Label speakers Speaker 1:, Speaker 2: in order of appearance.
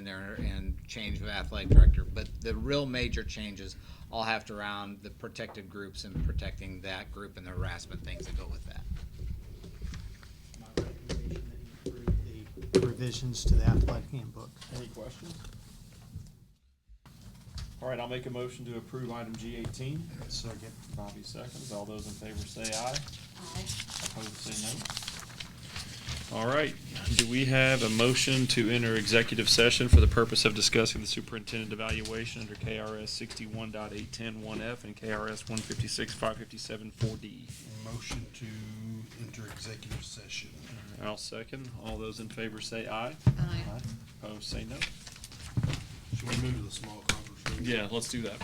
Speaker 1: in there and change of athletic director, but the real major changes all have to round the protected groups and protecting that group and the harassment things that go with that.
Speaker 2: My recommendation that you approve the revisions to the athletic handbook.
Speaker 3: Any questions? All right, I'll make a motion to approve item G eighteen.
Speaker 2: Second.
Speaker 3: Bobby seconds. All those in favor say aye.
Speaker 4: Aye.
Speaker 3: Opposed, say no. All right, do we have a motion to enter executive session for the purpose of discussing the superintendent evaluation under KRS sixty-one dot eight ten one F and KRS one fifty-six, five fifty-seven, four D?
Speaker 5: Motion to enter executive session.
Speaker 3: I'll second. All those in favor say aye.
Speaker 4: Aye.
Speaker 3: Opposed, say no.
Speaker 5: Should we move to the small conference room?
Speaker 3: Yeah, let's do that.